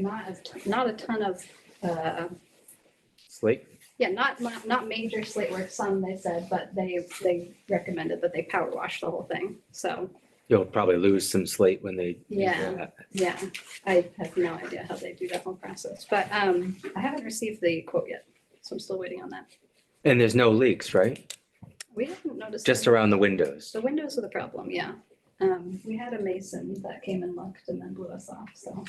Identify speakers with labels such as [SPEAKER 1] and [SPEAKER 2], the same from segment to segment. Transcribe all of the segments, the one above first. [SPEAKER 1] not, a- not a ton of, uh,
[SPEAKER 2] Slate.
[SPEAKER 1] yeah, not, not, not major slate work, some they said, but they, they recommended that they power wash the whole thing. So,
[SPEAKER 2] You'll probably lose some slate when they. do
[SPEAKER 1] Yeah.
[SPEAKER 2] that.
[SPEAKER 1] yeah, I have no idea how they do that whole process, but, um, I haven't received the quote yet. So I'm still waiting on that.
[SPEAKER 2] And there's no leaks, right?
[SPEAKER 1] We haven't noticed.
[SPEAKER 2] Just
[SPEAKER 1] any-
[SPEAKER 2] around the windows.
[SPEAKER 1] The windows are the problem, yeah. Um, we had a mason that came and looked and then blew us off, so.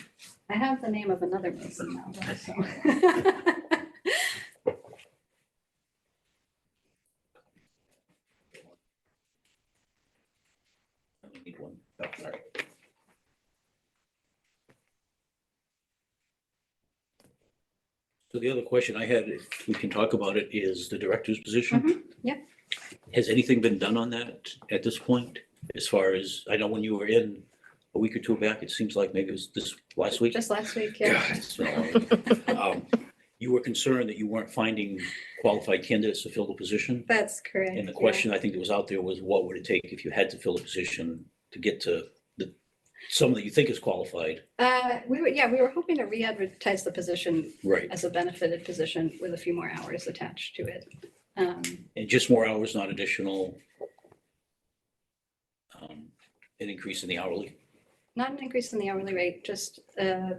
[SPEAKER 1] I have the name of another mason now, though, so.
[SPEAKER 3] Need one. Oh, sorry. So the other question I had, if we can talk about it, is the director's position.
[SPEAKER 1] yeah.
[SPEAKER 3] Has anything been done on that at this point? As far as, I know when you were in a week or two back, it seems like maybe it was this last week.
[SPEAKER 1] Just last week, yeah.
[SPEAKER 3] God, it's been a long week. Um, You were concerned that you weren't finding qualified candidates to fill the position.
[SPEAKER 1] That's correct.
[SPEAKER 3] And the
[SPEAKER 1] yeah.
[SPEAKER 3] question I think that was out there was what would it take if you had to fill a position to get to the, someone that you think is qualified?
[SPEAKER 1] Uh, we were, yeah, we were hoping to re-advertise the position
[SPEAKER 3] Right.
[SPEAKER 1] as a benefited position with a few more hours attached to it. Um,
[SPEAKER 3] And just more hours, not additional. um, An increase in the hourly.
[SPEAKER 1] not an increase in the hourly rate, just, uh,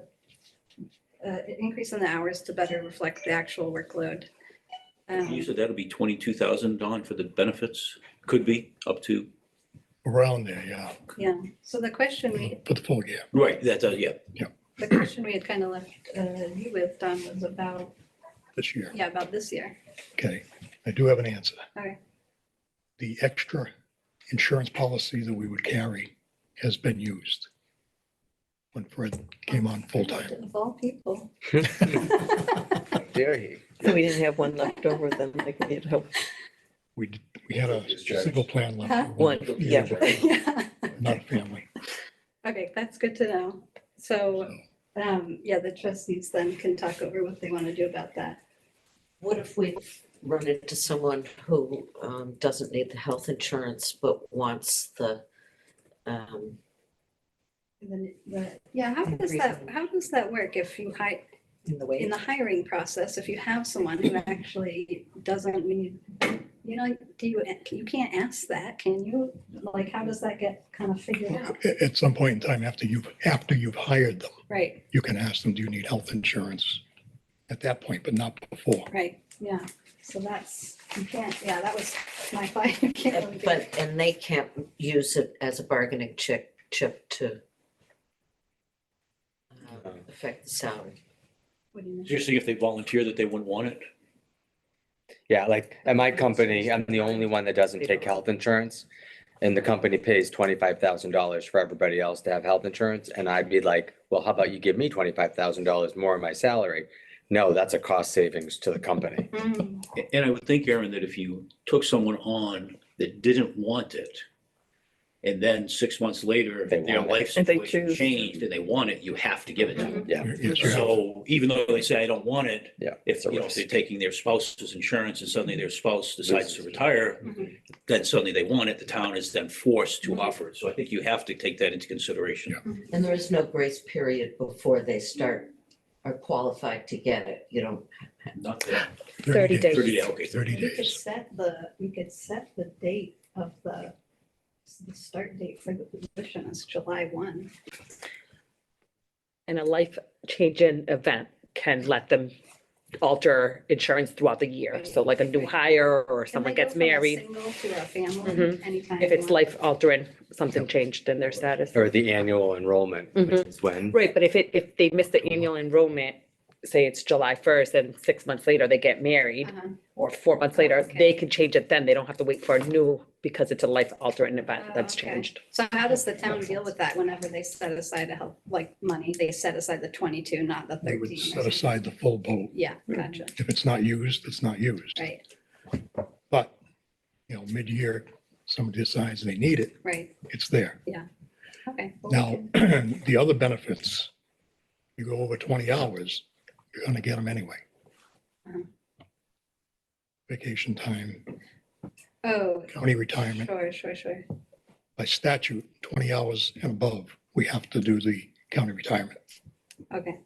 [SPEAKER 1] uh, increase in the hours to better reflect the actual workload. Um,
[SPEAKER 3] You said that'll be twenty-two thousand, Don, for the benefits, could be up to.
[SPEAKER 4] Around there, yeah,
[SPEAKER 1] Yeah, so the question we,
[SPEAKER 4] for the full year.
[SPEAKER 3] Right, that, uh, yeah,
[SPEAKER 1] the question we had kind of left uh, you with, Don, was about,
[SPEAKER 4] this year.
[SPEAKER 1] yeah, about this year.
[SPEAKER 4] Okay, I do have an answer.
[SPEAKER 1] Okay.
[SPEAKER 4] The extra insurance policy that we would carry has been used when Fred came on full-time.
[SPEAKER 1] Of all people.
[SPEAKER 2] Dare he?
[SPEAKER 5] So we didn't have one left over, then they could get help.
[SPEAKER 4] We, d- we had a single plan
[SPEAKER 1] Huh?
[SPEAKER 4] left.
[SPEAKER 5] One, yeah.
[SPEAKER 1] Yeah.
[SPEAKER 4] Not a family.
[SPEAKER 1] Okay, that's good to know. So, um, yeah, the trustees then can talk over what they want to do about that.
[SPEAKER 6] What if we run into someone who um, doesn't need the health insurance but wants the, um,
[SPEAKER 1] And then, the- Yeah, how does that, how does that work if you hire,
[SPEAKER 6] in the
[SPEAKER 1] in
[SPEAKER 6] way?
[SPEAKER 1] the hiring process, if you have someone who actually doesn't need, you know, do you, you can't ask that, can you? Like, how does that get kind of figured out?
[SPEAKER 4] At, at some point in time, after you've, after you've hired them,
[SPEAKER 1] Right,
[SPEAKER 4] you can ask them, do you need health insurance? At that point, but not before.
[SPEAKER 1] right, yeah. So that's, you can't, yeah, that was my fight. You can't really do
[SPEAKER 6] uh, But, and they can't use it as a bargaining chip, chip to um,
[SPEAKER 2] No.
[SPEAKER 6] affect the salary.
[SPEAKER 1] what do you mean?
[SPEAKER 3] you're saying if they volunteer that they wouldn't want it?
[SPEAKER 2] Yeah, like at my company, I'm the only one that doesn't take health insurance. And the company pays twenty-five thousand dollars for everybody else to have health insurance. And I'd be like, well, how about you give me twenty-five thousand dollars more of my salary? No, that's a cost savings to the company.
[SPEAKER 1] Mm,
[SPEAKER 3] A- And I would think, Aaron, that if you took someone on that didn't want it, and then six months later,
[SPEAKER 2] They
[SPEAKER 3] their
[SPEAKER 2] want it.
[SPEAKER 3] life
[SPEAKER 5] And they
[SPEAKER 3] situation
[SPEAKER 5] choose.
[SPEAKER 3] changed and they want it, you have to give it to them.
[SPEAKER 2] Yeah.
[SPEAKER 4] Yes, you have.
[SPEAKER 3] So even though they say, I don't want it,
[SPEAKER 2] Yeah.
[SPEAKER 3] if,
[SPEAKER 2] it's a
[SPEAKER 3] you know,
[SPEAKER 2] risk.
[SPEAKER 3] if they're taking their spouse's insurance and suddenly their spouse decides to
[SPEAKER 2] Loses.
[SPEAKER 3] retire,
[SPEAKER 5] Mm-hmm.
[SPEAKER 1] mhm.
[SPEAKER 3] then suddenly they want it, the town is then forced to offer it. So I think you have to take that into consideration.
[SPEAKER 6] And there is no grace period before they start, are qualified to get it. You don't
[SPEAKER 3] Not that,
[SPEAKER 5] 30 days.
[SPEAKER 3] thirty, yeah, okay, thirty.
[SPEAKER 4] Thirty
[SPEAKER 1] You could
[SPEAKER 4] days.
[SPEAKER 1] set the, you could set the date of the, the start date for the position is July one.
[SPEAKER 7] and a life changing event can let them alter insurance throughout the year.
[SPEAKER 1] Right,
[SPEAKER 7] So like a new
[SPEAKER 1] right.
[SPEAKER 7] hire
[SPEAKER 1] Can
[SPEAKER 7] or
[SPEAKER 1] they
[SPEAKER 7] someone gets
[SPEAKER 1] go from a
[SPEAKER 7] married,
[SPEAKER 1] Single to a family
[SPEAKER 7] Mhm.
[SPEAKER 1] anytime.
[SPEAKER 7] if
[SPEAKER 1] they
[SPEAKER 7] it's
[SPEAKER 1] want?
[SPEAKER 7] life altering, something changed in their status.
[SPEAKER 2] Or the annual enrollment, which
[SPEAKER 7] Mhm.
[SPEAKER 2] is when,
[SPEAKER 7] Right, but if it, if they miss the annual enrollment, say it's July first and six months later they get married
[SPEAKER 1] Uh-huh.
[SPEAKER 7] or four months
[SPEAKER 1] Oh,
[SPEAKER 7] later,
[SPEAKER 1] okay.
[SPEAKER 7] they can change it then. They don't have to wait for a new because it's a life altering event
[SPEAKER 1] Oh,
[SPEAKER 7] that's
[SPEAKER 1] okay.
[SPEAKER 7] changed.
[SPEAKER 1] So how does the town deal with that whenever they set aside a help, like money, they set aside the twenty-two, not the
[SPEAKER 4] They would
[SPEAKER 1] thirteen? or
[SPEAKER 4] set aside the full boat.
[SPEAKER 1] something? Yeah, gotcha,
[SPEAKER 4] If it's not used, it's not used.
[SPEAKER 1] right,
[SPEAKER 4] But, you know, mid-year, somebody decides they need it,
[SPEAKER 1] right,
[SPEAKER 4] it's there.
[SPEAKER 1] okay. well, we
[SPEAKER 4] Now,
[SPEAKER 1] can-
[SPEAKER 4] the other benefits, you go over 20 hours, you're going to get them anyway.
[SPEAKER 1] Mhm.
[SPEAKER 4] Vacation time,
[SPEAKER 1] Oh,
[SPEAKER 4] county retirement,
[SPEAKER 1] sure, sure, sure,
[SPEAKER 4] by statute, 20 hours and above, we have to do the county retirement.
[SPEAKER 1] okay,